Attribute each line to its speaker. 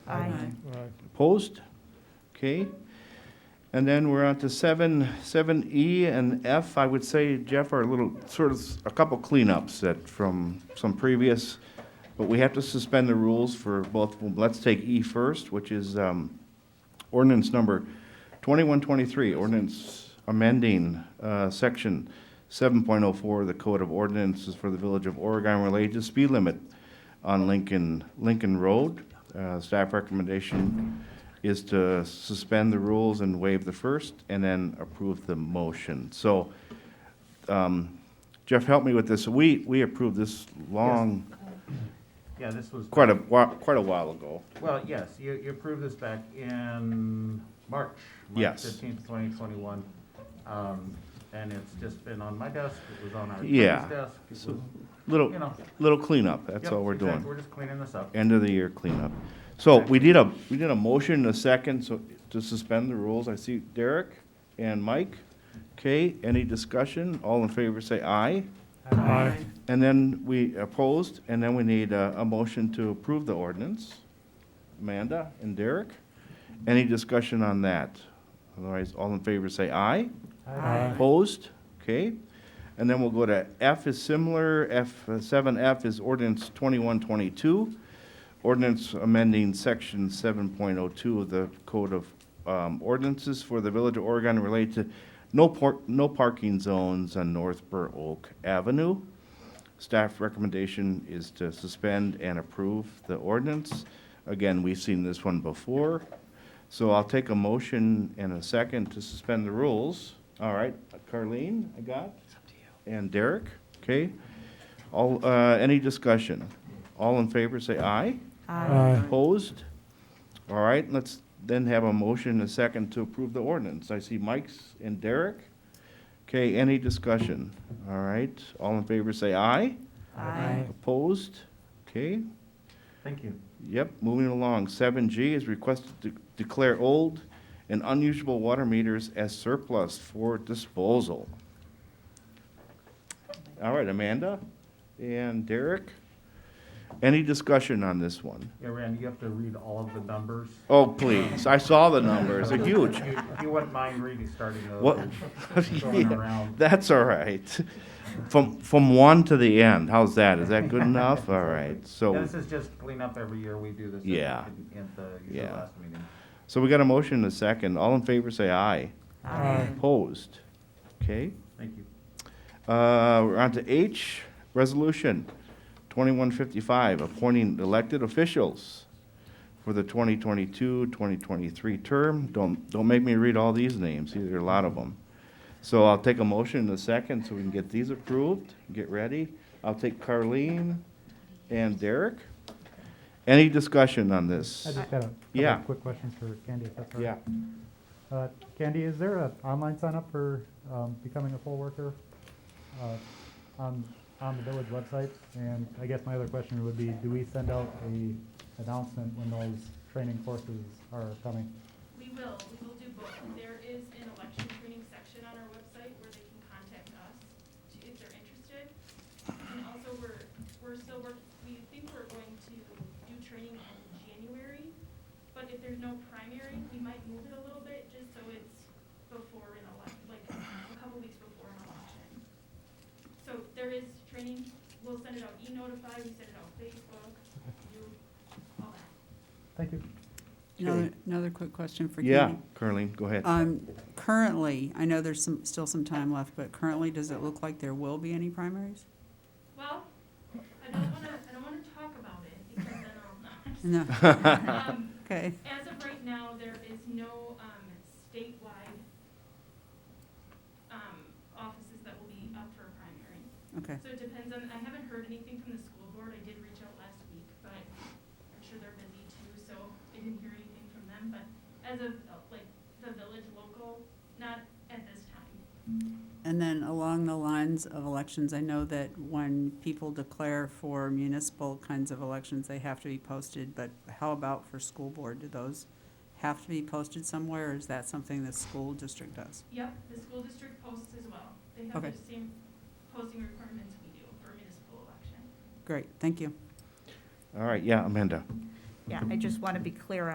Speaker 1: Aye.
Speaker 2: Opposed? Okay. And then we're on to seven, seven E and F. I would say, Jeff, are a little, sort of, a couple cleanups that, from some previous, but we have to suspend the rules for both, let's take E first, which is um, ordinance number twenty-one twenty-three, ordinance amending uh, section seven point oh four of the Code of Ordinances for the Village of Oregon related to speed limit on Lincoln, Lincoln Road. Uh, Staff recommendation is to suspend the rules and waive the first, and then approve the motion. So, um, Jeff, help me with this. We, we approved this long,
Speaker 3: Yeah, this was.
Speaker 2: quite a, whi- quite a while ago.
Speaker 3: Well, yes, you, you approved this back in March.
Speaker 2: Yes.
Speaker 3: March fifteenth, twenty twenty-one. Um, and it's just been on my desk, it was on our attorney's
Speaker 2: Yeah,
Speaker 3: desk. it was,
Speaker 2: Little,
Speaker 3: You know.
Speaker 2: little cleanup, that's
Speaker 3: Yep,
Speaker 2: all we're
Speaker 3: exactly,
Speaker 2: doing.
Speaker 3: We're just cleaning this up.
Speaker 2: End of the year cleanup. So we did a, we did a motion and a second, so to suspend the rules. I see Derek and Mike. Okay, any discussion? All in favor, say aye.
Speaker 4: Aye.
Speaker 2: And then we opposed, and then we need a, a motion to approve the ordinance. Amanda and Derek, any discussion on that? Otherwise, all in favor say aye.
Speaker 4: Aye.
Speaker 2: Opposed? Okay. And then we'll go to F is similar, F, uh, seven F is ordinance twenty-one twenty-two. Ordinance amending section seven point oh two of the Code of um, Ordinances for the Village of Oregon related to no por, no parking zones on North Burr Oak Avenue. Staff recommendation is to suspend and approve the ordinance. Again, we've seen this one before, so I'll take a motion and a second to suspend the rules. All right, Carleen, I got? And Derek, okay? All, uh, any discussion? All in favor, say aye.
Speaker 4: Aye.
Speaker 2: Opposed? All right, let's then have a motion and a second to approve the ordinance. I see Mike's and Derek. Okay, any discussion? All right, all in favor, say aye.
Speaker 1: Aye.
Speaker 2: Opposed? Okay,
Speaker 3: Thank you.
Speaker 2: yep, moving along. Seven G is requested to declare old and unusable water meters as surplus for disposal. All right, Amanda and Derek, any discussion on this one?
Speaker 3: Yeah, Randy, you have to read all of the numbers.
Speaker 2: Oh, please, I saw the numbers, they're huge.
Speaker 3: If you- if you wouldn't mind reading, starting those.
Speaker 2: What?
Speaker 3: and
Speaker 2: Yeah,
Speaker 3: Going around.
Speaker 2: That's all right. From, from one to the end, how's that? Is that good enough? All right, so.
Speaker 3: Yeah, This is just cleanup every year, we do this. at-
Speaker 2: Oh. Yeah.
Speaker 3: in- At the usual
Speaker 2: Yeah.
Speaker 3: last meeting.
Speaker 2: So we got a motion and a second. All in favor, say aye.
Speaker 4: Aye.
Speaker 2: Opposed? Okay.
Speaker 3: Thank you.
Speaker 2: Uh, We're on to H, Resolution 2155, appointing elected officials for the 2022-2023 term. Don't, don't make me read all these names, there are a lot of them. So I'll take a motion in a second so we can get these approved, get ready. I'll take Carleen and Derek. Any discussion on
Speaker 4: I
Speaker 2: this?
Speaker 4: just had a couple
Speaker 2: Yeah.
Speaker 4: of quick questions for Candy, if that's all
Speaker 2: Yeah.
Speaker 4: right. Uh, Candy, is there an online sign up for um, becoming a poll worker uh, on, on the village website? And I guess my other question would be, do we send out a announcement when those training courses are coming?
Speaker 5: We will, we will do both. There is an election training section on our website where they can contact us to- if they're interested. And also, we're, we're still work, we think we're going to do training in January, but if there's no primary, we might move it a little bit just so it's before an election, like a couple weeks before an election. So there is training, we'll send it out e-notify, we send it out Facebook, you, all that.
Speaker 4: Thank you.
Speaker 6: Another, another quick question for
Speaker 2: Yeah,
Speaker 6: Katie.
Speaker 2: Carleen, go ahead.
Speaker 6: Um, currently, I know there's some, still some time left, but currently, does it look like there will be any primaries?
Speaker 5: Well, I don't wanna, I don't wanna talk about it because then I'll
Speaker 6: No,
Speaker 5: not. Um,
Speaker 6: okay,
Speaker 5: As of right now, there is no, um, statewide, um, offices that will be up for a primary.
Speaker 6: okay.
Speaker 5: So it depends on, I haven't heard anything from the school board. I did reach out last week, but I'm sure they're busy too, so I didn't hear anything from them. But as of, uh, like, the village local, not at this time.
Speaker 6: And then along the lines of elections, I know that when people declare for municipal kinds of elections, they have to be posted, but how about for school board? Do those have to be posted somewhere, or is that something the school district does?
Speaker 5: Yep, the school district posts as well. They have
Speaker 6: Okay.
Speaker 5: the same posting requirements we do for municipal election.
Speaker 6: Great, thank you.
Speaker 2: All right, yeah, Amanda.
Speaker 1: Yeah, I just want to be clear